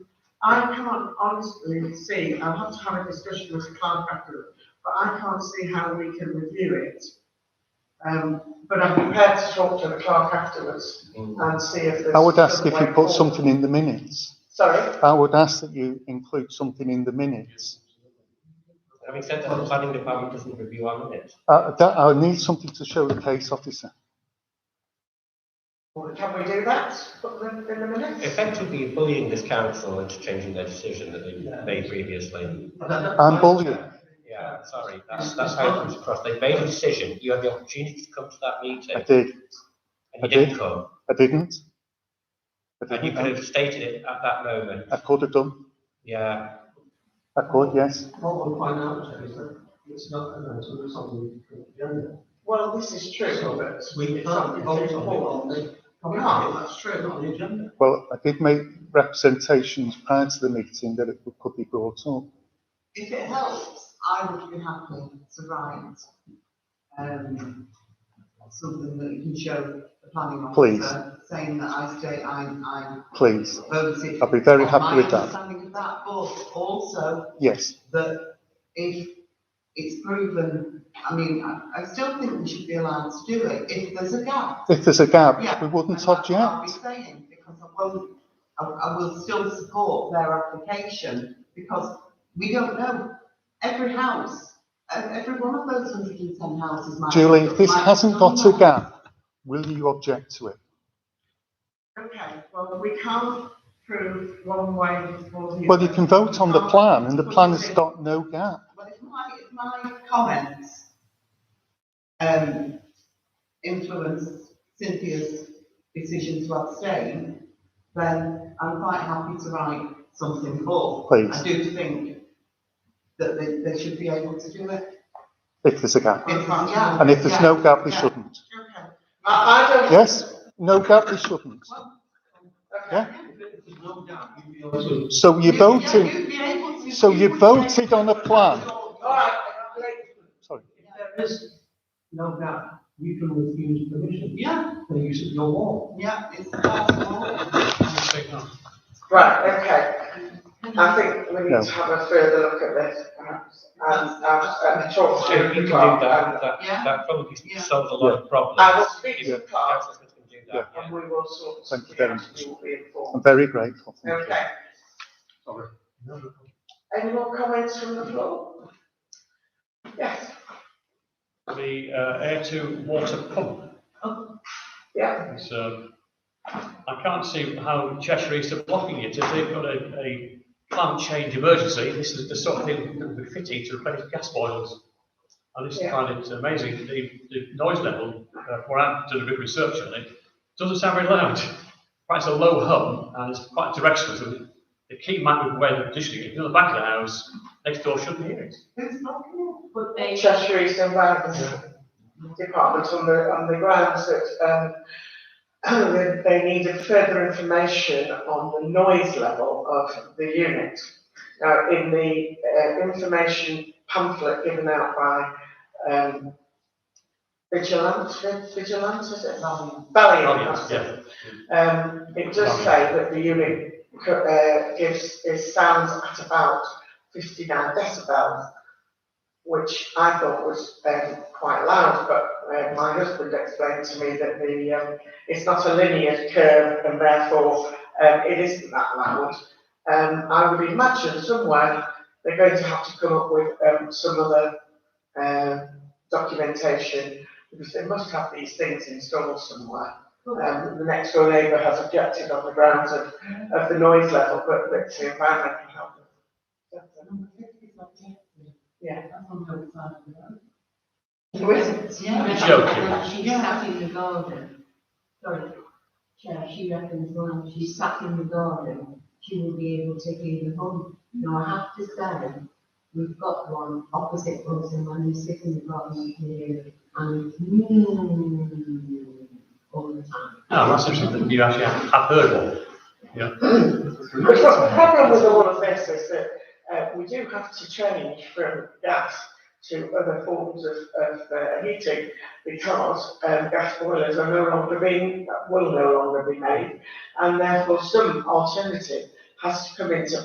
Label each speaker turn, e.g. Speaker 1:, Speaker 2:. Speaker 1: I can't honestly see, I'll have to have a discussion with Clark afterwards, but I can't see how we can review it. Um, but I'm prepared to talk to the clerk afterwards and see if there's.
Speaker 2: I would ask if
Speaker 1: another
Speaker 2: you put
Speaker 1: way forward.
Speaker 2: something in the minutes.
Speaker 1: Sorry,
Speaker 2: I would ask that you include something in the minutes.
Speaker 3: Having said that, the planning department doesn't review our minutes.
Speaker 2: Uh, that, I need something to show the case officer.
Speaker 1: can we do that, put them in the minutes?
Speaker 3: Effectively bullying this council into changing their decision that they made previously.
Speaker 2: I'm bullying.
Speaker 3: Yeah, sorry, that's, that's how it comes across. They made a decision, you had the opportunity to come to that meeting,
Speaker 2: I did.
Speaker 3: and you
Speaker 2: I did.
Speaker 3: didn't come.
Speaker 2: I didn't. I
Speaker 3: And you
Speaker 2: didn't.
Speaker 3: could have stated it at that moment.
Speaker 2: I could have done.
Speaker 3: Yeah,
Speaker 2: I could, yes.
Speaker 4: What we'll find out is that it's not an item, it's on the agenda.
Speaker 1: Well, this is true, but.
Speaker 4: We
Speaker 1: it's
Speaker 4: can't
Speaker 1: something
Speaker 4: vote on
Speaker 1: to
Speaker 4: it
Speaker 1: report.
Speaker 4: on the.
Speaker 1: Oh, no, that's
Speaker 4: true. Not on the agenda.
Speaker 2: Well, I did make representations prior to the meeting that it could be brought up.
Speaker 1: If it helps, I would be happy to write, um, something that you can show the planning
Speaker 2: Please.
Speaker 1: officer, saying that I state I, I
Speaker 2: Please.
Speaker 1: voted.
Speaker 2: I'll be very
Speaker 1: on
Speaker 2: happy with
Speaker 1: My
Speaker 2: that.
Speaker 1: understanding of that, but also
Speaker 2: Yes.
Speaker 1: that if it's proven, I mean, I, I still think we should be allowed to do it, if there's a gap.
Speaker 2: If there's a gap,
Speaker 1: Yeah,
Speaker 2: we
Speaker 1: And
Speaker 2: wouldn't
Speaker 1: that's what I'll be
Speaker 2: object.
Speaker 1: saying, because I won't, I, I will still support their application, because we don't know. Every house, e- every one of those hundred and ten houses might.
Speaker 2: Julie, if this
Speaker 1: might
Speaker 2: hasn't
Speaker 1: have
Speaker 2: got a
Speaker 1: done that.
Speaker 2: gap, will you object to it?
Speaker 1: Okay, well, we can't prove one way or the other.
Speaker 2: Well, you can vote on the
Speaker 1: We
Speaker 2: plan
Speaker 1: can't
Speaker 2: and the
Speaker 1: put
Speaker 2: plan
Speaker 1: it
Speaker 2: has
Speaker 1: in.
Speaker 2: got no gap.
Speaker 1: Well, if my, if my comments, um, influence Cynthia's decision to abstain, then I'm quite happy to write something more.
Speaker 2: Please.
Speaker 1: I do think that they, they should be able to do it.
Speaker 2: If there's a gap.
Speaker 1: If- yeah,
Speaker 2: And if there's
Speaker 1: yeah,
Speaker 2: no gap, we
Speaker 1: yeah.
Speaker 2: shouldn't.
Speaker 1: Okay. I, I don't.
Speaker 2: Yes? No gap, we shouldn't. Yeah.
Speaker 4: There's no doubt, you'd be able to.
Speaker 2: So you're voting,
Speaker 1: You'd be able to.
Speaker 2: so you
Speaker 1: would be able
Speaker 2: voted on a plan.
Speaker 1: All right,
Speaker 2: Sorry.
Speaker 4: If there is no doubt, you can refuse permission
Speaker 1: yeah,
Speaker 4: for use of your wall.
Speaker 1: yeah, it's possible.
Speaker 5: Right, okay. I think we need to have a further look at this perhaps Um, and, and, and talk
Speaker 3: so
Speaker 5: to
Speaker 3: if you
Speaker 5: the
Speaker 3: can do
Speaker 5: clerk.
Speaker 3: that,
Speaker 5: and-
Speaker 3: that,
Speaker 1: Yeah.
Speaker 3: that probably
Speaker 1: Yeah.
Speaker 3: solves a lot of problems.
Speaker 5: I will speak to the
Speaker 3: If
Speaker 5: clerk
Speaker 3: councillors can do that, yeah.
Speaker 5: and we will sort.
Speaker 2: Thank you very much.
Speaker 5: You will be
Speaker 2: I'm
Speaker 5: informed.
Speaker 2: very grateful. Thank you.
Speaker 5: Okay. Any more comments from the floor? Yes,
Speaker 6: the uh, air to water pump.
Speaker 5: yeah,
Speaker 6: It's, um, I can't see how Cheshire East are blocking it. If they've got a, a climate change emergency, this is the sort of thing that would be fitting to replace gas boilers. I just
Speaker 5: Yeah.
Speaker 6: find it amazing, the, the noise level, uh, where I've done a bit of research on it, doesn't sound very loud. Quite a low hum, and it's quite directional, so the- the key might be where the conditioning, if you're in the back of the house, next door shouldn't hear it.
Speaker 1: Who's blocking
Speaker 7: But they,
Speaker 5: Cheshire East Environment Department on the, on the grounds that, um, that they needed further information on the noise level of the unit. Now, in the, uh, information pamphlet given out by, um, Vigilance, Vigilance, is it? Valiant. Valiant, that's it.
Speaker 6: Yeah,
Speaker 5: Um, it does say that the unit, co- uh, gives, is sounds at about fifty-nine decibels, which I thought was, um, quite loud, but, uh, my husband explained to me that the, um, it's not a linear curve and therefore, um, it isn't that loud. Um, I would imagine somewhere they're going to have to come up with, um, some other, um, documentation, because they must have these things installed somewhere um, the next door neighbour has objected on the grounds of, of the noise level, but, but the environment can help. Yeah.
Speaker 7: yeah,
Speaker 6: Joking.
Speaker 7: she sat in the garden. Sorry, Chair, she reckons when she sat in the garden, she will be able to hear the hum. Now, I have to say, we've got one opposite us and when you sit in the garden, you can hear it. And mm, all the time.
Speaker 6: no, Oh, that's interesting, you actually have have heard one.
Speaker 5: Which was the problem with all of this is that, uh, we do have to change from gas to other forms of, of, uh, heating because, um, gas boilers are no longer being, will no longer be made. And therefore some alternative has to come into